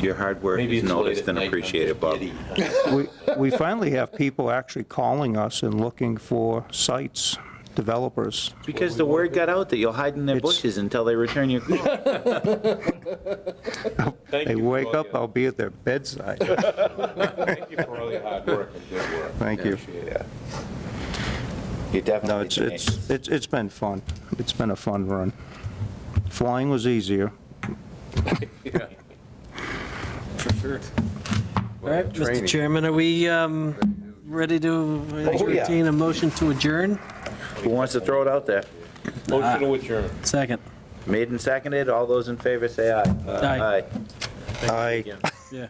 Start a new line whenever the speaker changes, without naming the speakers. Your hard work
Maybe
is
it's late
noticed
at
and
night, I'm
appreciated, Bob.
giddy.
We- We finally have people actually calling us and looking for sites, developers.
Because the word got out that you'll hide in their
It's-
bushes until they return your call.
Thank
They
you for
wake
all
up,
your-
I'll be at their bedside.
Thank you for all your hard work and good work.
Thank
I
you.
Appreciate it.
You
No,
definitely
it's,
did.
it's, it's it's been fun. It's been a fun run. Flying was easier.
All right, Mr. Chairman, are we um, ready to entertain a motion to adjourn?
Who wants to throw it out there?
Motion to adjourn.
Second.
Made and seconded, all those in favor say aye.
Aye.
I.
Yeah.